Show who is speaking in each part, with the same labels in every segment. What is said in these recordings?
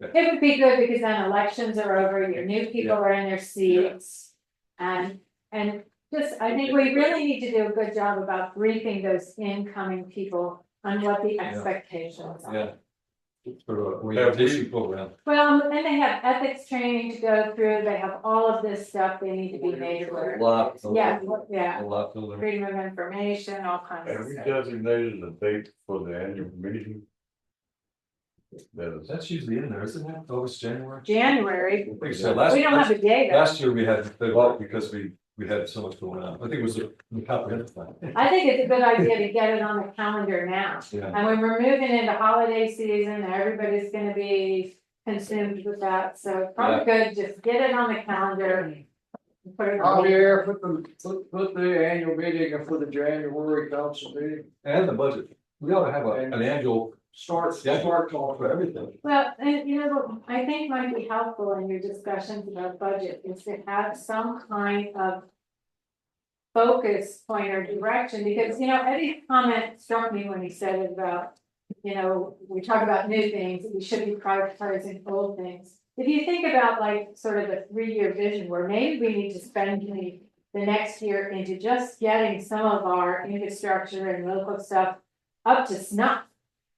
Speaker 1: It would be good because then elections are over, your new people are in their seats. And, and just, I think we really need to do a good job about briefing those incoming people on what the expectations are.
Speaker 2: yeah. Sort of a
Speaker 3: Have we-
Speaker 2: orientation program.
Speaker 1: Well, and they have ethics training to go through, they have all of this stuff they need to be made aware. of.
Speaker 2: Lot. to
Speaker 1: Yeah,
Speaker 2: learn.
Speaker 1: yeah,
Speaker 2: A lot to learn.
Speaker 1: freedom of information, all kinds
Speaker 3: Have
Speaker 1: of
Speaker 3: we
Speaker 1: stuff.
Speaker 3: designated a date for the annual meeting? That is,
Speaker 2: That's usually in there, isn't it? Always January.
Speaker 1: January,
Speaker 2: I think so. Last-
Speaker 1: we don't have a
Speaker 2: last-
Speaker 1: date.
Speaker 2: Last year we had, they well, because we, we had so much going on. I think it was a the comprehensive plan.
Speaker 1: I think it's a good idea to get it on the calendar now.
Speaker 2: Yeah,
Speaker 1: And when we're moving into holiday season, everybody's gonna be consumed with that, so probably good, just get it on the calendar. Put it
Speaker 4: Oh,
Speaker 1: on,
Speaker 4: yeah, put the, put, put the annual meeting for the January council meeting,
Speaker 2: and the budget. We ought to have a- an annual
Speaker 4: start,
Speaker 2: Yeah.
Speaker 4: start talking.
Speaker 2: for everything.
Speaker 1: well, and you know, I think might be helpful in your discussions about budget is to have some kind of. Focus point or direction, because you know, Eddie's comment struck me when he said it about. You know, we talk about new things, we should be prioritizing old things. If you think about like sort of the three-year vision where maybe we need to spend the. The next year into just getting some of our infrastructure and local stuff up to snuff.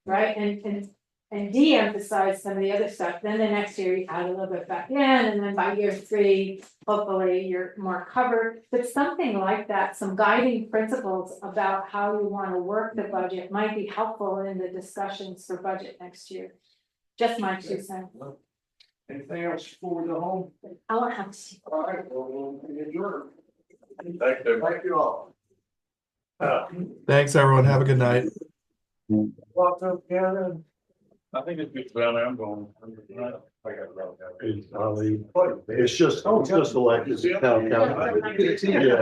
Speaker 1: Right, and and and de-emphasize some of the other stuff, then the next year you add a little bit back in, and then by year three. Hopefully you're more covered, but something like that, some guiding principles about how you wanna work the budget might be helpful in the discussions for budget next year. Just my two cents,
Speaker 4: Anything else before we go home?
Speaker 1: I won't have to.
Speaker 4: All right, well, we'll adjourn.
Speaker 3: thank you.
Speaker 4: Thank you all.
Speaker 3: Uh,
Speaker 5: Thanks, everyone. Have a good night.
Speaker 4: Lots of gathering.
Speaker 3: I think it's good, well, I'm going.
Speaker 6: It's probably- It's just, it's just elected town council. Yeah.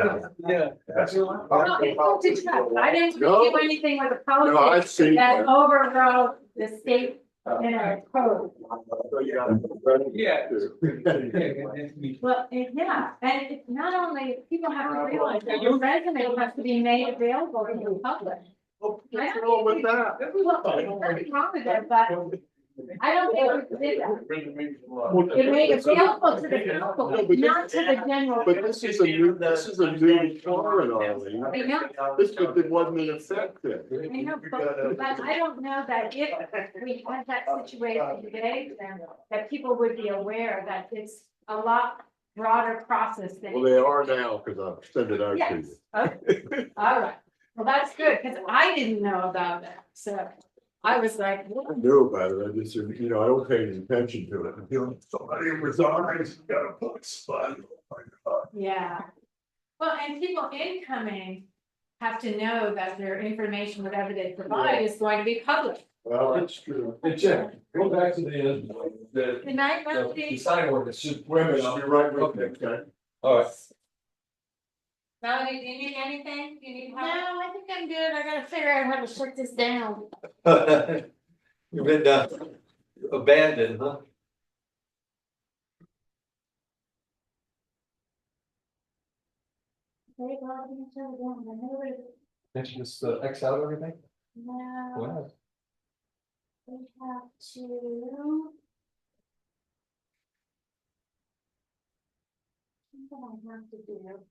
Speaker 3: Yeah.
Speaker 4: That's your line.
Speaker 1: No, it's not to check. I didn't
Speaker 6: No.
Speaker 1: do anything with the
Speaker 6: No, I've
Speaker 1: policy
Speaker 6: seen.
Speaker 1: that overrode the state in our code.
Speaker 3: Yeah.
Speaker 1: Well, and yeah, and it's not only, people have to realize that your resume has to be made available to the public.
Speaker 4: What's wrong with that?
Speaker 1: Well, there's nothing wrong with that, but I don't think we did that. It made it available to the
Speaker 6: No,
Speaker 1: public,
Speaker 6: but
Speaker 1: not to the general.
Speaker 6: But this is a new, this is a new charter, Arlene.
Speaker 1: I know,
Speaker 6: This, but it wasn't in effect then.
Speaker 1: I know, but, but I don't know that if we had that
Speaker 6: Uh,
Speaker 1: situation today, then that people would be aware that it's a lot broader process than.
Speaker 6: Well, they are now, because I've sent it out to
Speaker 1: Yes,
Speaker 6: you.
Speaker 1: okay, all right, well, that's good, because I didn't know about that, so I was like,
Speaker 6: I
Speaker 1: what?
Speaker 6: knew about it. I just, you know, I don't pay any attention to it. Until somebody resigns, you got a book spot.
Speaker 1: yeah. Well, and people incoming have to know that their information, whatever they provide, is going to be public.
Speaker 6: Well, that's true.
Speaker 2: And Jack, go back to the, the,
Speaker 1: Good night,
Speaker 2: the
Speaker 1: Melody,
Speaker 2: sign ordinance, should,
Speaker 6: Wait a minute, I'll be right with you, okay?
Speaker 2: all right.
Speaker 7: Melody, do you need anything? Do you need
Speaker 1: no,
Speaker 7: help?
Speaker 1: I think I'm good, I gotta figure out how to shut this down.
Speaker 2: You've been uh, abandoned, huh?
Speaker 1: They got me shut it down, I know it-
Speaker 2: Didn't you just uh, X out everything?
Speaker 1: No,
Speaker 2: Wow.
Speaker 1: we have to. What I have to do.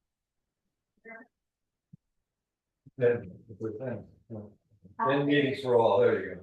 Speaker 2: Then, then meetings for all, there you go.